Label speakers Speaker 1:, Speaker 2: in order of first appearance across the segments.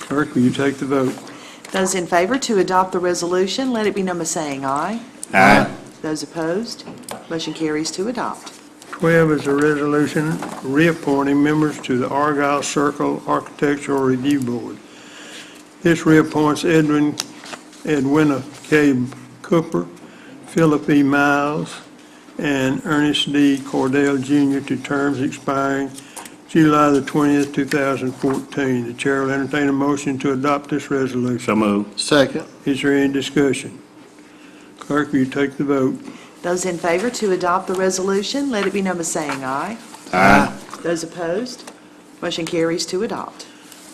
Speaker 1: Clerk, will you take the vote?
Speaker 2: Those in favor to adopt the resolution, let it be number saying aye.
Speaker 3: Aye.
Speaker 2: Those opposed, motion carries to adopt.
Speaker 1: 12 is a resolution reappointing members to the Argyle Circle Architectural Review Board. This reappoints Edwin, Edwina K. Cooper, Philip E. Miles, and Ernest D. Cordell Jr. to terms expiring July the 20th, 2014. The chair will entertain a motion to adopt this resolution.
Speaker 3: So moved.
Speaker 4: Second.
Speaker 1: Is there any discussion? Clerk, will you take the vote?
Speaker 2: Those in favor to adopt the resolution, let it be number saying aye.
Speaker 3: Aye.
Speaker 2: Those opposed, motion carries to adopt.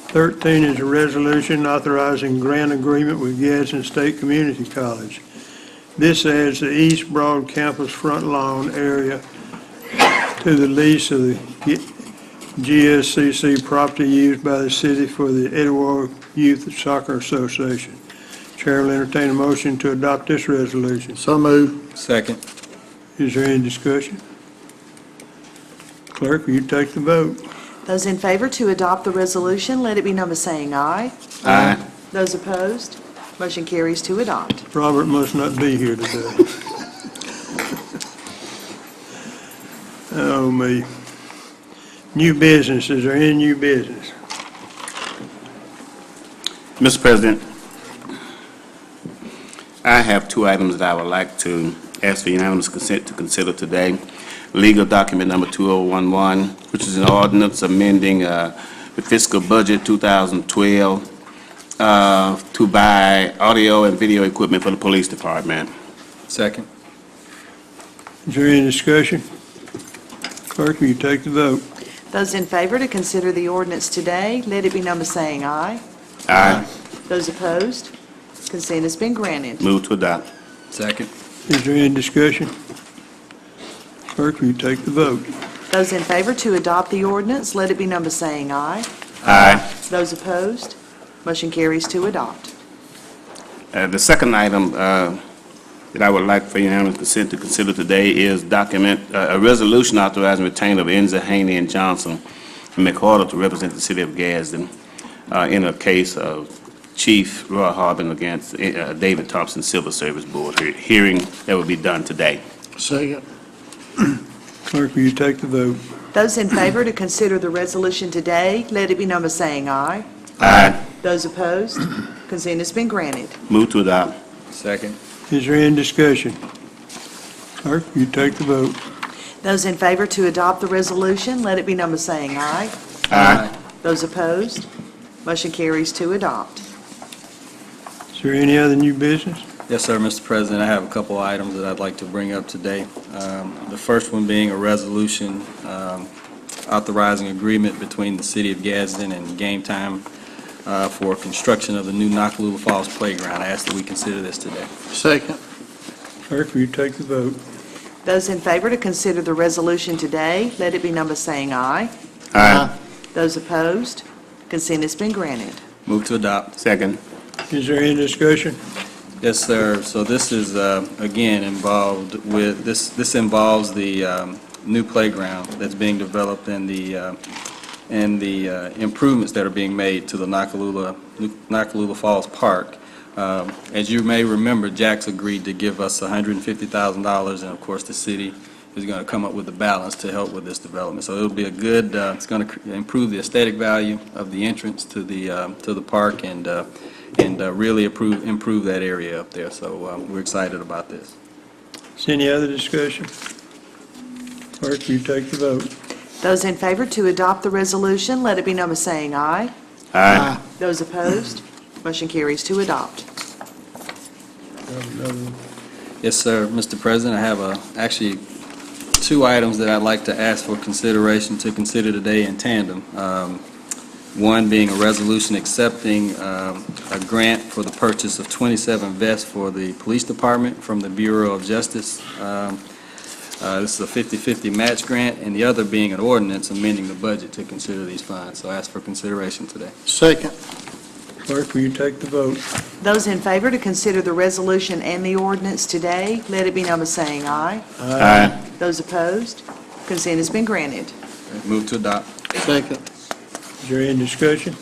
Speaker 1: 13 is a resolution authorizing grant agreement with Gadsden State Community College. This adds the East Broad Campus front lawn area to the lease of the GSCC property used by the city for the Edgewater Youth Soccer Association. Chair will entertain a motion to adopt this resolution.
Speaker 4: So moved.
Speaker 5: Second.
Speaker 1: Is there any discussion? Clerk, will you take the vote?
Speaker 2: Those in favor to adopt the resolution, let it be number saying aye.
Speaker 3: Aye.
Speaker 2: Those opposed, motion carries to adopt.
Speaker 1: Robert must not be here today. Oh, me. New business, is there any new business?
Speaker 3: Mr. President, I have two items that I would like to ask for unanimous consent to consider today. Legal document number 2011, which is an ordinance amending uh, the fiscal budget 2012 uh, to buy audio and video equipment for the police department.
Speaker 5: Second.
Speaker 1: Is there any discussion? Clerk, will you take the vote?
Speaker 2: Those in favor to consider the ordinance today, let it be number saying aye.
Speaker 3: Aye.
Speaker 2: Those opposed, consent has been granted.
Speaker 3: Move to adopt.
Speaker 5: Second.
Speaker 1: Is there any discussion? Clerk, will you take the vote?
Speaker 2: Those in favor to adopt the ordinance, let it be number saying aye.
Speaker 3: Aye.
Speaker 2: Those opposed, motion carries to adopt.
Speaker 3: Uh, The second item uh, that I would like for unanimous consent to consider today is document, uh, a resolution authorizing retainer of Enza Haney and Johnson and McCorder to represent the city of Gadsden uh, in a case of Chief Roy Harbin against uh, David Thompson Civil Service Board he- hearing that will be done today.
Speaker 4: Second.
Speaker 1: Clerk, will you take the vote?
Speaker 2: Those in favor to consider the resolution today, let it be number saying aye.
Speaker 3: Aye.
Speaker 2: Those opposed, consent has been granted.
Speaker 3: Move to adopt.
Speaker 5: Second.
Speaker 1: Is there any discussion? Clerk, will you take the vote?
Speaker 2: Those in favor to adopt the resolution, let it be number saying aye.
Speaker 5: Uh,
Speaker 3: Aye.
Speaker 2: Those opposed, motion carries to adopt.
Speaker 1: Is there any other new business?
Speaker 5: Yes, sir, Mr. President, I have a couple items that I'd like to bring up today. Um, The first one being a resolution um, authorizing agreement between the City of Gadsden and Game Time uh, for construction of the new Nakalula Falls Playground. I ask that we consider this today.
Speaker 4: Second.
Speaker 1: Clerk, will you take the vote?
Speaker 2: Those in favor to consider the resolution today, let it be number saying aye.
Speaker 3: Aye.
Speaker 2: Those opposed, consent has been granted.
Speaker 5: Move to adopt.
Speaker 3: Second.
Speaker 1: Is there any discussion?
Speaker 5: Yes, sir. So this is, uh, again, involved with, this This involves the um, new playground that's being developed and the, uh, and the uh, improvements that are being made to the Nakalula, Nakalula Falls Park. Um, As you may remember, Jack's agreed to give us $150,000, and of course, the city is going to come up with the balance to help with this development. So it'll be a good, uh, it's going to improve the aesthetic value of the entrance to the, um, to the park and uh, and uh, really approve, improve that area up there. So uh, we're excited about this.
Speaker 1: Is any other discussion? Clerk, will you take the vote?
Speaker 2: Those in favor to adopt the resolution, let it be number saying aye.
Speaker 3: Aye.
Speaker 2: Those opposed, motion carries to adopt.
Speaker 5: Yes, sir, Mr. President, I have uh, actually two items that I'd like to ask for consideration to consider today in tandem. Um, One being a resolution accepting um, a grant for the purchase of 27 vests for the Police Department from the Bureau of Justice. Um, uh, This is a 50-50 match grant, and the other being an ordinance amending the budget to consider these funds. So I ask for consideration today.
Speaker 4: Second.
Speaker 1: Clerk, will you take the vote?
Speaker 2: Those in favor to consider the resolution and the ordinance today, let it be number saying aye.
Speaker 3: Aye.
Speaker 2: Those opposed, consent has been granted.
Speaker 5: Move to adopt.
Speaker 4: Second.
Speaker 1: Is there any discussion?